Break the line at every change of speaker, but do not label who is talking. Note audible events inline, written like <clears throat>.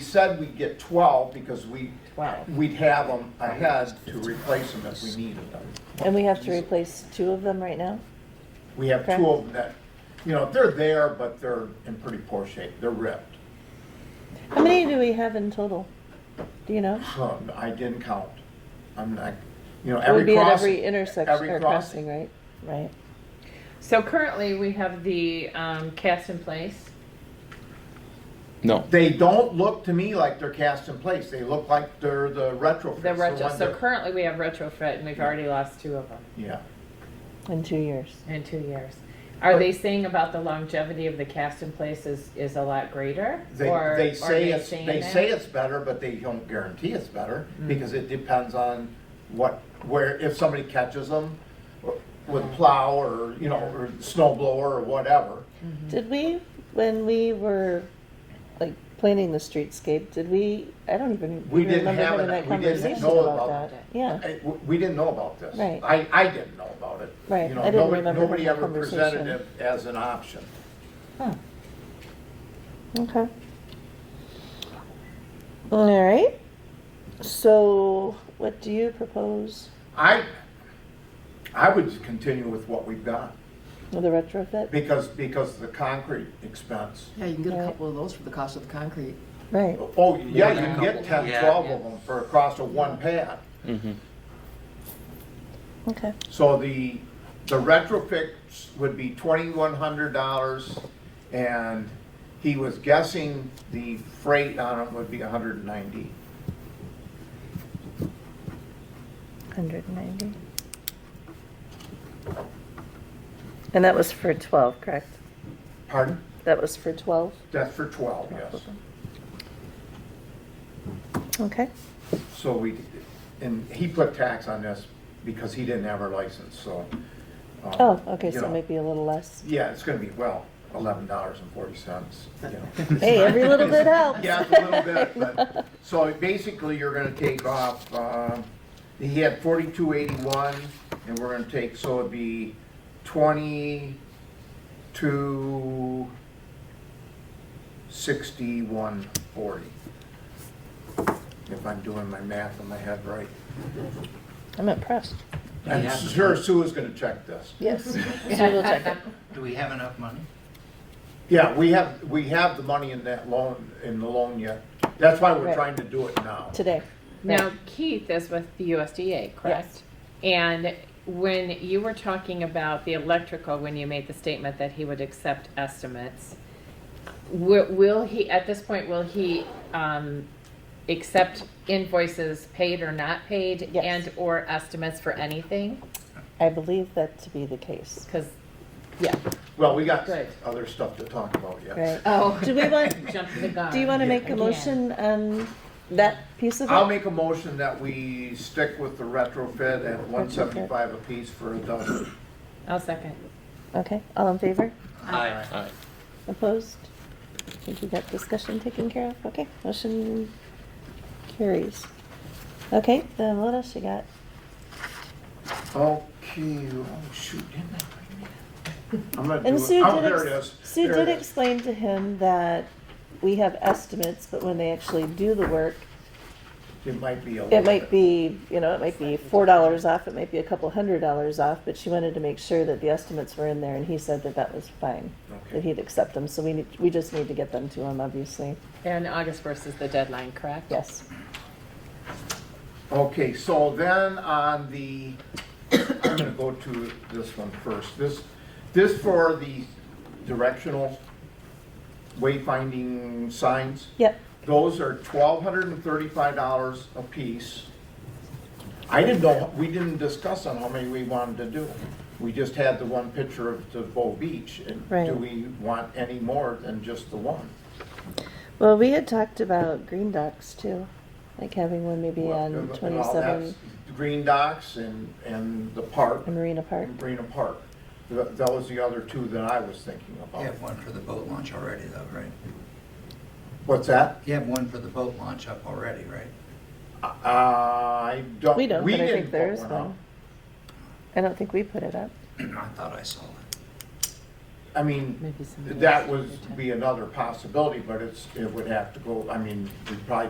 said we'd get twelve because we,
12.
we'd have them ahead to replace them if we needed them.
And we have to replace two of them right now?
We have
Okay.
two of them that, you know, they're there, but they're in pretty poor shape. They're ripped.
How many do we have in total? Do you know?
Um, I didn't count. I'm not, you know,
It would
every
be at
crossing.
every intersection
every
or crossing, right? Right.
So currently, we have the um, cast in place.
No.
They don't look to me like they're cast in place. They look like they're the retrofits.
The retro.
one
so
that-
currently, we have retrofit, and we've already lost two of them
Yeah.
In two years.
in two years. Are they saying about the longevity of the cast in place is, is a lot greater?
They,
or
they
are
say it's,
saying
they
that?
say it's better, but they don't guarantee it's better because it depends on what, where, if somebody catches them
Uh-huh.
or- with plow or, you know, or snow blower or whatever.
Mm-hmm.
Did we, when we were like planning the streetscape, did we, I don't even
We didn't
remember
have
having
it-
that
we didn't
conversation
know
about
about
that.
it.
Yeah.
I- w- We didn't know about this.
Right.
I, I didn't know about it.
Right.
You know,
I didn't
nobody-
remember
Nobody
having
ever
that
presented it
conversation.
as an option.
Huh.
Hmm.
Okay. All right. So what do you propose
I, I would continue with what we've got
with the retrofit?
because, because the concrete expense.
Yeah, you can get a
Right.
couple of those for the cost of the concrete.
Right.
Oh, yeah, you can
Yeah.
get 10,
Yeah.
12 of them for a cost of one pad.
Mm-hmm.
Okay.
So the, the retrofits would be twenty-one hundred dollars, and he was guessing the freight on it would be hundred and ninety.
190. And that was for 12, correct?
Pardon?
That was for 12?
That's for twelve, yes.
Okay.
So we, and he put tax on this because he didn't have a license, so. um,
Oh, okay,
you
so
know.
maybe a little less.
Yeah, it's gonna be, well, eleven dollars and forty cents, you know.
<laughs> Hey, every little bit helps.
Yeah, it's a little bit, but, so basically, you're gonna take off, um, he had forty-two eighty-one, and we're gonna take, so it'd be twenty-two sixty-one forty. If I'm doing my math in my head right.
I'm impressed.
I'm
Yeah.
sure Sue is gonna check this. <laughs>
Yes. So we'll check it.
Do we have enough money?
Yeah, we have, we have the money in that loan, in the loan yet, that's why we're
Right.
trying to do it now.
Today.
Now, Keith is with the USDA, correct? And when you were talking about the electrical, when you made the statement that he would accept estimates, will, will he, at this point, will he, um, accept invoices paid or not paid?
Yes.
And/or estimates for anything?
I believe that to be the case.
Because,
Yeah.
Well, we got
Good.
other stuff to talk about yet.
Right.
oh.
<laughs> Do we want,
<laughs> Jump the gun.
do you want to
Yeah.
make a motion on that piece of it?
I'll make a motion that we stick with the retrofit at one seventy-five apiece for a dozen.
I'll second.
Okay, all in favor?
Aye.
All right.
Opposed? I think we got discussion taken care of. Okay, motion carries. Okay, then what else you got?
Okay, oh shoot, didn't I? I'm gonna
And
do
Sue
it, oh,
did,
there it
ex-
is.
Sue
There
did
it is.
explain to him that we have estimates, but when they actually do the work,
It might be a little
it
bit.
might be, you know, it might be four dollars off, it might be a couple hundred dollars off, but she wanted to make sure that the estimates were in there, and he said that that was fine, that
Okay.
he'd accept them, so we need, we just need to get them to him, obviously.
And August 1st is the deadline, correct?
Yes.
Okay, so then on the, I'm gonna go to this one first. This, this for the directional wayfinding signs.
Yep,
Those are twelve hundred and thirty-five dollars a piece. I didn't know, we didn't discuss on how many we wanted to do. We just had the one picture of the Bow Beach, and do
Right.
we want any more than just the one?
well, we had talked about green docks too, like having one maybe
Well,
on
and all
twenty-seven
that's the Green Docks and, and the park,
and Marina Park.
Marina Park. Th- That was the other two that I was thinking
You
about.
have one for the boat launch already though, right?
What's that?
You have one for the boat launch up already, right? <clears throat>
I don't,
We
we
don't, but I
didn't
think there
put
is
one up.
one. I don't think we put it up.
I thought I saw it.
I mean,
Maybe some.
that would be another possibility, but it's, it would have to go, I mean, we probably